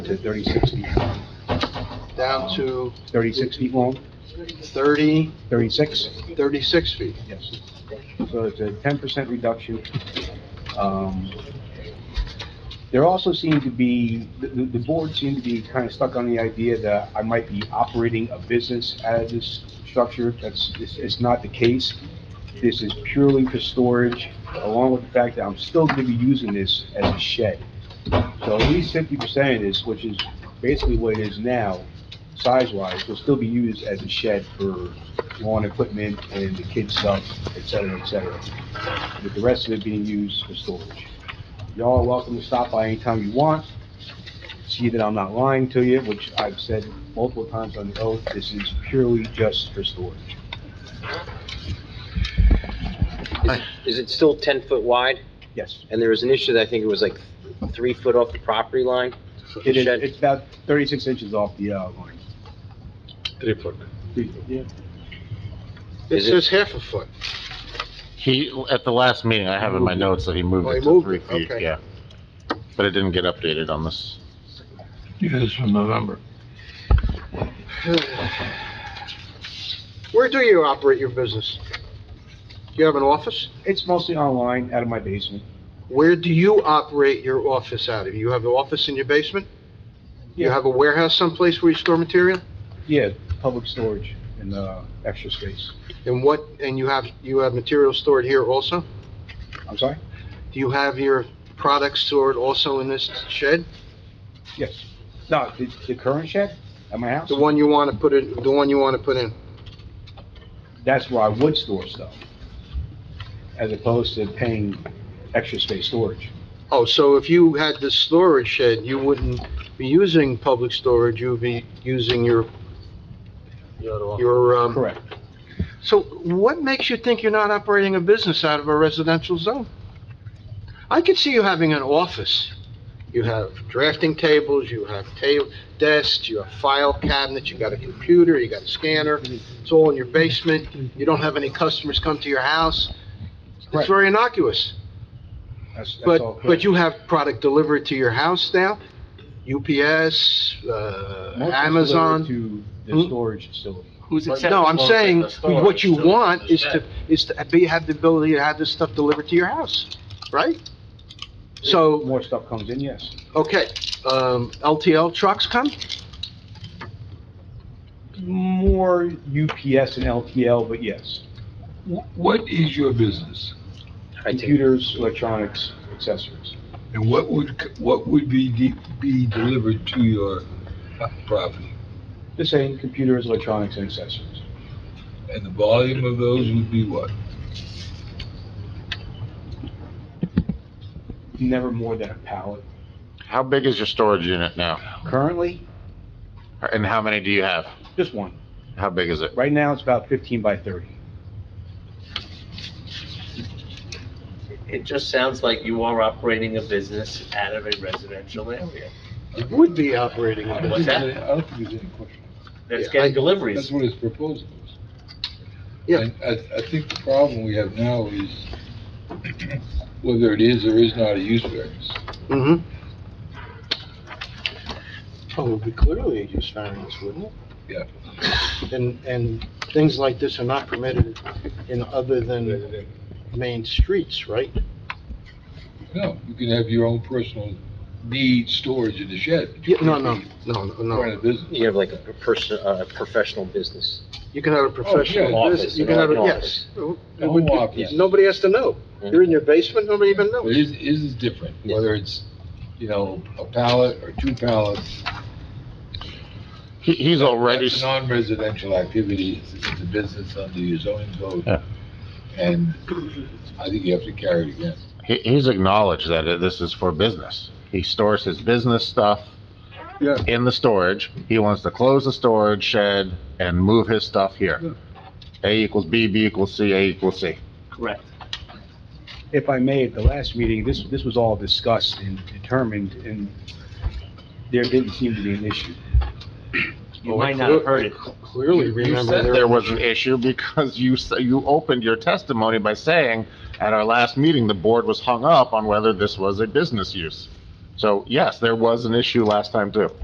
to 36 feet long, down to 36 feet long, 30, 36? 36 feet. Yes. So it's a 10% reduction. Um, There also seemed to be, the- the the board seemed to be kind of stuck on the idea that I might be operating a business out of this structure. That's, it's it's not the case. This is purely for storage, along with the fact that I'm still going to be using this as a shed. So at least 50% of this, which is basically what it is now, size-wise, will still be used as a shed for lawn equipment and the kids' stuff, et cetera, et cetera, with the rest of it being used for storage. Y'all are welcome to stop by anytime you want, see that I'm not lying to you, which I've said multiple times on the oath, this is purely just for storage. Is it still 10 foot wide? Yes, And there was an issue that I think it was like three foot off the property line? it is, Shed. it's about thirty-six inches off the, uh, line. Three foot. Yeah. It Is it- says half a foot. He, at the last meeting, I have in my notes that he moved Oh, he it to moved three it, feet, okay. yeah. But it didn't get updated on this. Yes, from November. Where do you operate your business? Do you have an office? It's mostly online, out of my basement. Where do you operate your office out of? You have an office in your basement? You have a warehouse someplace where you store material? Yeah, public storage and, uh, extra space. And what, and you have, you have material stored here also? I'm sorry? Do you have your products stored also in this shed? Yes. No, the, the current shed at my house? The one you want to put in, the one you want to put in? that's where I would store stuff, as opposed to paying extra space storage. Oh, so if you had this storage shed, you wouldn't be using public storage, you'd be using your, your, um... Correct. So what makes you think you're not operating a business out of a residential zone? I could see you having an office. You have drafting tables, you have ta, desks, you have file cabinets, you got a computer, you got a scanner, it's all in your basement, you don't have any customers come to your house. It's Correct. very innocuous. That's, that's all. But, but correct. you have product delivered to your house now? UPS, uh, Most is Amazon? delivered To the Hmm? storage facility. Who's accepting? No, I'm well, saying, the storage what you facility want is shed. to, is to be, have the ability to have this stuff delivered to your house, right? So, More stuff comes in, yes. okay, um, LTL trucks come? More UPS and LTL, but yes. Wh- What is your business? I take- Computers, electronics, accessories. And what would, c- what would be, de- be delivered to your uh, property? The same, computers, electronics, and accessories. And the volume of those would be what? Never more than a pallet. How big is your storage unit now? Currently, And how many do you have? just one. How big is it? Right now, it's about 15 by 30. It just sounds like you are operating a business out of a residential area. You would be operating I a don't What's think that? business. there's any- I don't think there's any question. That's Yeah, getting I- That's deliveries. what his proposal is. Yeah. And I, I think the problem we have now is whether it is or is not a use variance. Mm-hmm. Oh, it would be clearly a use variance, wouldn't it? Yeah. And, and things like this are not permitted in other than main streets, right? No, you can have your own personal need storage in the shed. but you Yeah, no, can't no, be no, no, Running a no. business. You have like a person, a professional business. You can have a professional yeah. business, Office, you can have, a an yes. office. It would- Home office. Nobody has to know. You're in your basement, nobody even But knows. is, is is different, Yeah. whether it's, you know, a pallet or two pallets. He, he's already, That's a non-residential activity, it's, it's a business under your zoning Yeah. code. And I think you have to carry it again. he, he's acknowledged that it- this is for business. He stores his business stuff Yeah. in the storage. He wants to close the storage shed and move his stuff Yeah. here. A equals B, B equals C, A equals C. Correct. if I may, at the last meeting, this, this was all discussed and determined, and there didn't seem to be an issue. You might not have heard it. Clearly You remember said there. there was an issue because you, s- you opened your testimony by saying, at our last meeting, the board was hung up on whether this was a business use. So yes, there was an issue last time too.